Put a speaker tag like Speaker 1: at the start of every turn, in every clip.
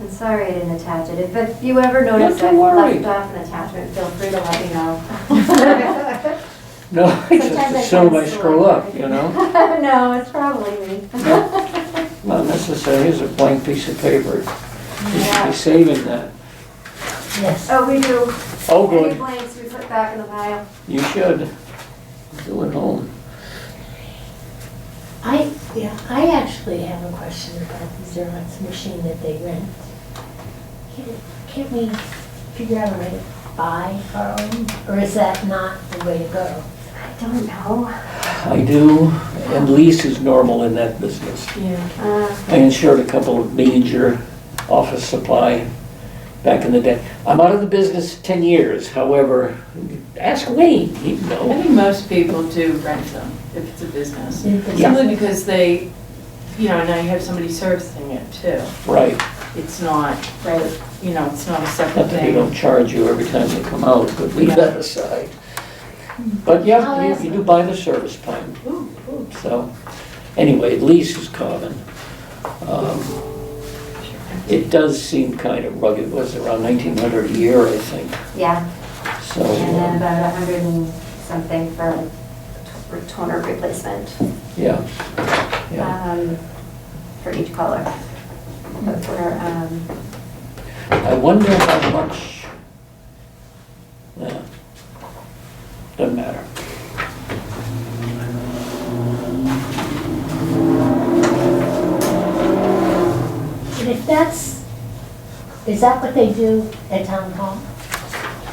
Speaker 1: I'm sorry I didn't attach it, If- if you ever notice
Speaker 2: Not
Speaker 1: I've
Speaker 2: to worry.
Speaker 1: left off an attachment, feel free to let me know.
Speaker 2: No, I just
Speaker 1: Sometimes I
Speaker 2: assume
Speaker 1: find
Speaker 2: I screw
Speaker 1: slow.
Speaker 2: up, you know?
Speaker 1: No, it's probably me.
Speaker 2: Not necessary, here's a blank piece of paper. You should
Speaker 1: Yeah.
Speaker 2: be saving that.
Speaker 3: Yes.
Speaker 1: Oh, we do,
Speaker 2: Oh,
Speaker 1: any
Speaker 2: good,
Speaker 1: blanks we put back in the pile.
Speaker 2: you should. Do it home.
Speaker 3: I, yeah, I actually have a question about the Xerox machine that they rent. Can't- Can't we figure out a way to buy our own, or is that not the way to go?
Speaker 1: I don't know.
Speaker 2: I do, and lease is normal in that business.
Speaker 3: Yeah.
Speaker 1: Uh,
Speaker 2: I insured a couple of major office supply back in the day. I'm out of the business 10 years, however, ask Wayne, he'd
Speaker 4: I
Speaker 2: know.
Speaker 4: think most people do rent them if it's a business.
Speaker 2: Yeah.
Speaker 4: Simply because they, you know, and I have somebody servicing it too.
Speaker 2: Right,
Speaker 4: It's not,
Speaker 3: Right,
Speaker 4: you know, it's not a
Speaker 2: not
Speaker 4: separate
Speaker 2: that they
Speaker 4: thing.
Speaker 2: don't charge you every time they come out, but leave
Speaker 4: Yeah.
Speaker 2: that aside. But yeah, you- you do buy the service plan,
Speaker 3: ooh, ooh.
Speaker 2: so, anyway, lease is common. Um, It does seem kind of rugged, was it around 1,900 a year, I think,
Speaker 1: Yeah,
Speaker 2: so.
Speaker 1: and
Speaker 2: um,
Speaker 1: then about a hundred and something for t- toner replacement,
Speaker 2: Yeah, yeah.
Speaker 1: um, for each color. But we're, um,
Speaker 2: I wonder how much, yeah, doesn't matter.
Speaker 3: And if that's, is that what they do at town hall?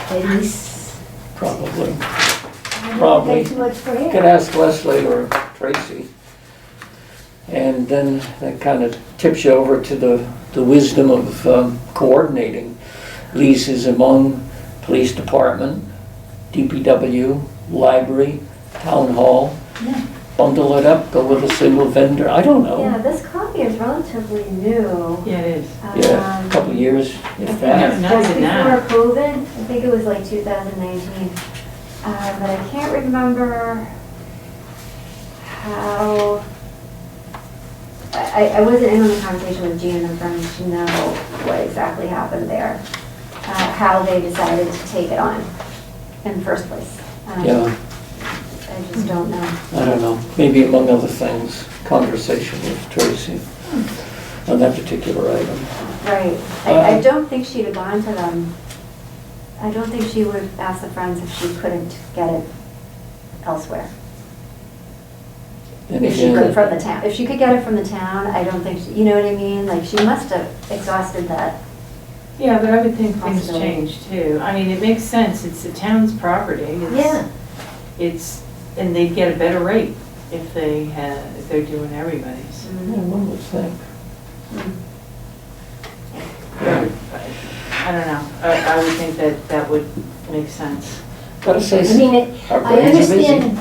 Speaker 3: They lease?
Speaker 2: Probably.
Speaker 3: I don't
Speaker 2: Probably.
Speaker 3: pay too much for
Speaker 2: You can
Speaker 3: it.
Speaker 2: ask Leslie or Tracy. And then that kind of tips you over to the, the wisdom of um, coordinating leases among police department, DPW, library, town hall.
Speaker 4: Yeah.
Speaker 2: Bundle it up, go with a single vendor, I don't know.
Speaker 1: yeah, this copy is relatively new.
Speaker 4: Yeah, it is.
Speaker 2: Yeah, a
Speaker 1: Um,
Speaker 2: couple of years, if that.
Speaker 4: Yeah, not
Speaker 1: Just
Speaker 4: even
Speaker 1: before
Speaker 4: that.
Speaker 1: COVID, I think it was like 2019, Uh, but I can't remember how, I, I- I wasn't in on the conversation with Jean, I'm trying to know what exactly happened there, uh, how they decided to take it on in the first place. Um,
Speaker 2: Yeah,
Speaker 1: I just don't know.
Speaker 2: I don't know, maybe among other things, conversation with Tracy on that particular item.
Speaker 1: Right. I, I
Speaker 2: Uh,
Speaker 1: don't think she'd have gone to them. I don't think she would have asked the Friends if she couldn't get it elsewhere.
Speaker 2: And
Speaker 1: If she could
Speaker 2: again,
Speaker 1: from the town, if she could get it from the town, I don't think, she- you know what I mean? Like, she must have exhausted that.
Speaker 4: Yeah, but I would think things
Speaker 1: Possibility.
Speaker 4: change too. I mean, it makes sense. It's the town's property. It's-
Speaker 3: Yeah.
Speaker 4: It's, and they'd get a better rate if they had, if they're doing everybody's.
Speaker 2: Yeah, One would think. Yeah.
Speaker 4: I don't know. I, I would think that that would make sense.
Speaker 2: Gotta say,
Speaker 3: I mean, it,
Speaker 2: our
Speaker 3: I
Speaker 2: brains are busy.
Speaker 3: understand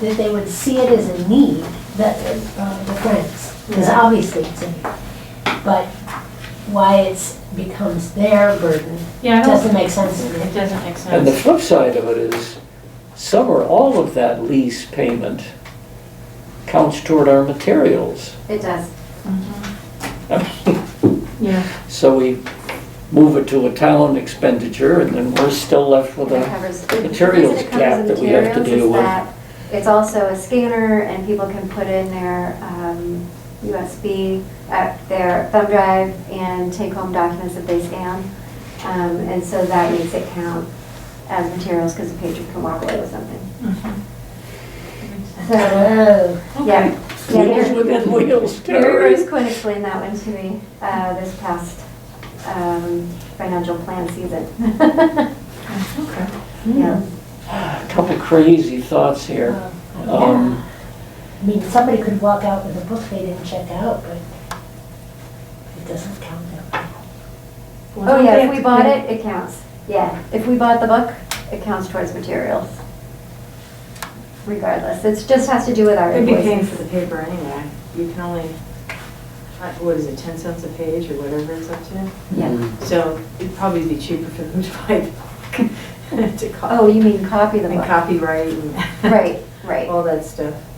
Speaker 3: that they would see it as a need, that, uh, the friends, because
Speaker 1: Yeah.
Speaker 3: obviously it's a need. But why it's, becomes their burden,
Speaker 4: Yeah, I don't,
Speaker 3: doesn't make sense to
Speaker 4: it
Speaker 3: me.
Speaker 4: doesn't make
Speaker 2: And the
Speaker 4: sense.
Speaker 2: flip side of it is, some or all of that lease payment counts toward our materials.
Speaker 1: It does.
Speaker 4: Mm-hmm. Yeah.
Speaker 2: So we move it to a town expenditure, and then we're still left with
Speaker 1: It
Speaker 2: a,
Speaker 1: covers. it- the reason
Speaker 2: materials
Speaker 1: it covers
Speaker 2: gap
Speaker 1: the
Speaker 2: that we have to
Speaker 1: materials
Speaker 2: deal
Speaker 1: is
Speaker 2: with.
Speaker 1: that It's also a scanner and people can put in their um, USB, uh, their thumb drive and take home documents that they scan. Um, And so that makes it count as materials because the patron can walk away with something.
Speaker 4: Mm-hmm.
Speaker 1: So,
Speaker 3: Oh,
Speaker 1: yeah. Yeah,
Speaker 2: wheels
Speaker 1: Gary-
Speaker 2: within wheels,
Speaker 1: Mary
Speaker 2: Terry.
Speaker 1: Rose Quinn explained that one to me uh, this past um, financial plan season.
Speaker 4: Okay.
Speaker 3: Hmm.
Speaker 1: Yeah.
Speaker 2: A Couple crazy thoughts here.
Speaker 3: uh,
Speaker 2: Um,
Speaker 3: I mean, somebody could walk out with a book they didn't check out, but it doesn't count that way.
Speaker 1: Oh, yeah, if we bought it, it counts. Yeah, if we bought the book, it counts towards materials. Regardless, it just has to do with our
Speaker 4: They'd be paying for
Speaker 1: invoices.
Speaker 4: the paper anyway. You can only, uh, what is it, 10 cents a page or whatever it's up to?
Speaker 1: Yeah.
Speaker 4: So it'd probably be cheaper for them to buy the book, to
Speaker 1: Oh,
Speaker 4: copy,
Speaker 1: you mean copy the
Speaker 4: and
Speaker 1: book?
Speaker 4: copyright and
Speaker 1: Right, right.
Speaker 4: all that stuff.